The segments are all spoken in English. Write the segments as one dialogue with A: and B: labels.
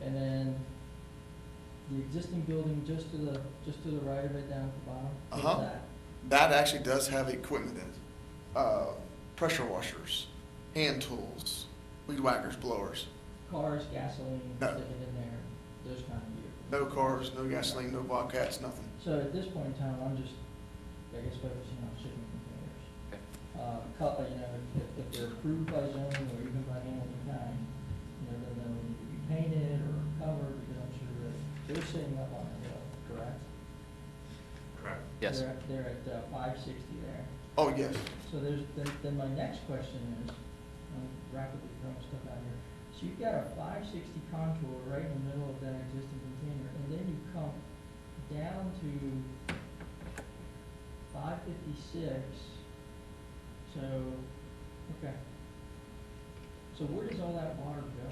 A: And then the existing building just to the, just to the right of it down at the bottom. what's
B: Uh-huh.
A: that?
B: That actually does have equipment in it. Uh, pressure washers, hand tools, weed whackers, blowers.
A: Cars, gasoline,
B: No.
A: sticking in there, those kind of vehicles.
B: No cars, no gasoline, no bobcats, nothing.
A: So at this point in time, I'm just, I guess focusing on shipping containers.
C: Okay.
A: Uh, cut, you know, if, if they're approved by zoning or even by Hamilton County, you know, then they'll need to be painted or covered, because I'm sure that they're sitting up on the hill, correct?
D: Correct.
C: Yes.
A: They're, at- they're at five sixty there.
B: Oh, yes.
A: So there's, then, then my next question is, I'm rapidly throwing stuff out here. So you've got a five sixty contour right in the middle of that existing container, and then you come down to five fifty-six. So, okay. So where does all that water go?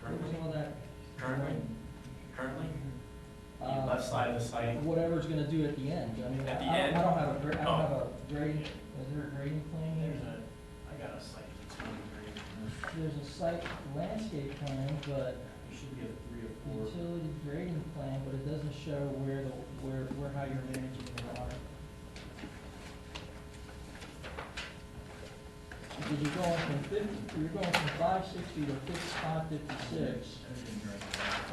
A: Where does
D: Currently,
A: all that?
D: currently, currently, the
A: Uh,
D: left side of the site,
A: Whatever it's gonna do at the end, I mean, I
D: At the
A: I don't, I
D: end?
A: don't have a, gra- I don't
D: Oh.
A: have a grading, is there a grading plan there?
D: there's a, I got a site that's going to
A: There's a site landscape plan, but
D: It should be a three or four.
A: utility grading plan, but it doesn't show where the, where, where, how you're managing the water. Because you're going from fifty, you're going from five sixty to fifty-five, fifty-six, and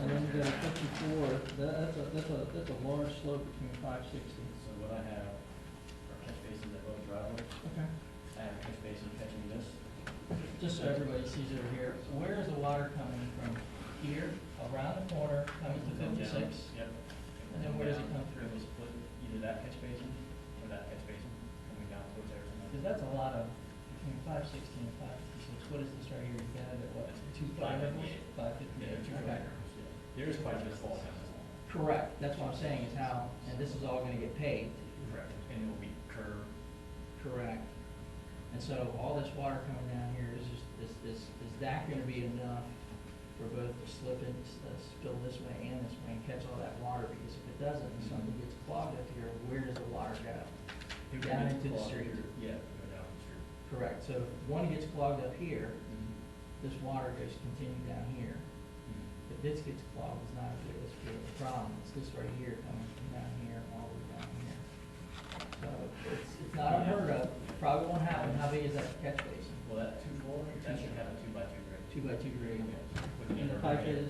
A: then you go to fifty-four, that, that's a, that's a, that's a large slope between five sixty.
D: So what I have are catch basins that both driveways,
A: Okay.
D: I have a catch basin catching this.
A: Just so everybody sees over here, where is the water coming from? Here, around the corner, coming to
D: Come down,
A: fifty-six?
D: Yep.
A: And then where does it come
D: Down,
A: through?
D: It'll split either that catch basin or that catch basin, coming down towards
A: Because
D: Arizona.
A: that's a lot of, between five sixty and five fifty-six, what is this right here, you got it at what, two five levels? Five fifty-eight, okay.
D: There is quite a bit of fall down.
A: Correct, that's what I'm saying is how, and this is all gonna get paved.
D: Correct. And it will be curved.
A: Correct. And so all this water coming down here is just, is, is, is that gonna be enough for both to slip and s- uh, spill this way and this way and catch all that water? Because if it doesn't, and something gets clogged up here, where does the water go?
D: It would
A: Down
D: be
A: into the
D: clogged
A: street.
D: here. Yeah, it would go down the street.
A: Correct, so if one gets clogged up here, this water goes continue down here. If this gets clogged, it's not a big, it's a big of a problem, it's this right here coming from down here all the way down here. So it's, it's not unheard of, probably won't happen, how big is that catch basin?
D: Well, that two four, that should have a two by two grade.
A: Two by two grade. And
D: With
A: the
D: inner
A: pipe is,
D: grade.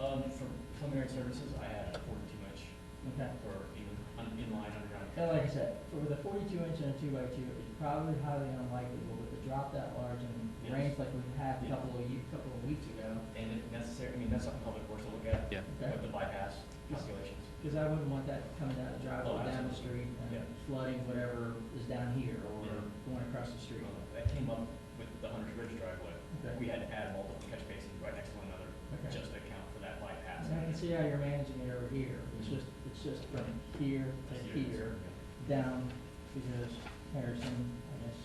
D: Um, for preliminary services, I had a forty-two inch
A: okay,
D: for even un- inline underground.
A: and like I said, for the forty-two inch and a two by two, it's probably highly unlikely, but with a drop that large and
D: Yes.
A: rains like we had a
D: Yeah.
A: couple of, ye- couple of weeks ago,
D: And if necessary, I mean, that's something public works will look at,
C: Yeah.
A: okay?
D: with the bypass calculations.
A: Because I wouldn't want that coming down the
D: Oh,
A: driveway, down the
D: absolutely.
A: street,
D: Yeah.
A: and flooding whatever is down here, or
D: Yeah.
A: going across the street.
D: Um, That came up with the Hunter's Ridge driveway.
A: Okay.
D: We had to add multiple catch basins right next to one another,
A: Okay.
D: just to account for that bypass.
A: And I can see how you're managing it over here, it's just, it's just from here to here, down, because Harrison, I guess,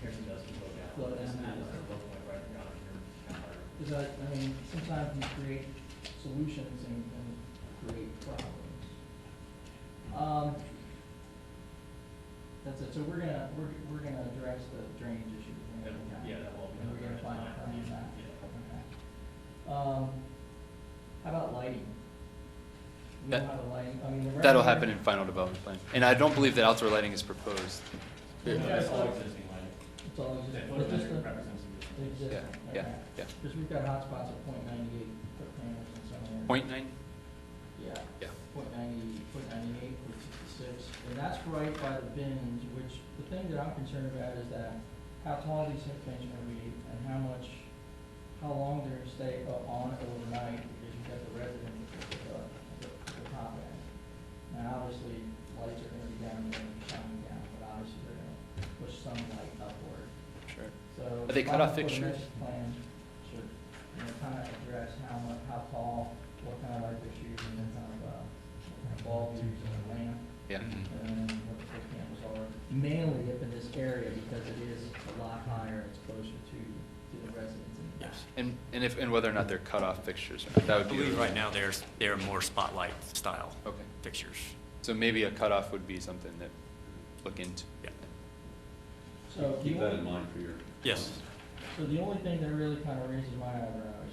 D: Harrison does go down.
A: Flow down.
D: It's not- it's a low point right down here, down here.
A: because I, I mean, sometimes we create solutions and, and create problems. Um, that's it, so we're gonna, we're, we're gonna address the drainage issue.
D: That- Yeah, that will be.
A: And we're gonna
D: another
A: find a
D: time.
A: permanent back.
D: Yeah.
A: Okay. Um, how about lighting? We don't
C: That-
A: have a lighting, I mean, the.
C: That'll
A: rendering-
C: happen in final development plan. And I don't believe that outdoor lighting is proposed.
A: Yeah.
D: Yeah, That's all existing lighting.
A: It's all
D: That
A: existing, but just
D: photometric
A: the,
D: represents
A: the
D: existing.
C: Yeah,
A: existing,
C: yeah,
A: okay.
C: yeah.
A: Cause we've got hotspots at point ninety-eight foot candles in some areas.
C: Point nine?
A: Yeah.
C: Yeah.
A: Point ninety, point ninety-eight, point sixty-six, and that's right by the bins, which, the thing that I'm concerned about is that how tall these things are gonna be, and how much, how long they're gonna stay up on overnight, because you've got the resident at the, at the, at the top end. Now, obviously, lights are gonna be down, there and shining down, but obviously they're gonna push some light upward.
C: Sure.
A: So.
C: Are they cut off
A: probably for the
C: fixtures?
A: next Plan should, you know, kind of address how much, how tall, what kind of light fixtures and then kind of, uh, what kind of bulbs and a lamp
C: Yeah.
E: Mm-hmm.
A: and then what the foot candles are. Mainly up in this area because it is a lot higher, it's closer to, to the residents in the back.
C: And, and if, and whether or not they're cut off fixtures or not, that
E: I
C: would be.
E: believe right now there's, they're more spotlight style
C: Okay.
E: fixtures.
C: So maybe a cutoff would be something that look into.
E: Yeah.
A: So the
F: Keep that in
A: only,
F: mind for your.
E: Yes.
A: so the only thing that really kind of raises my eyebrow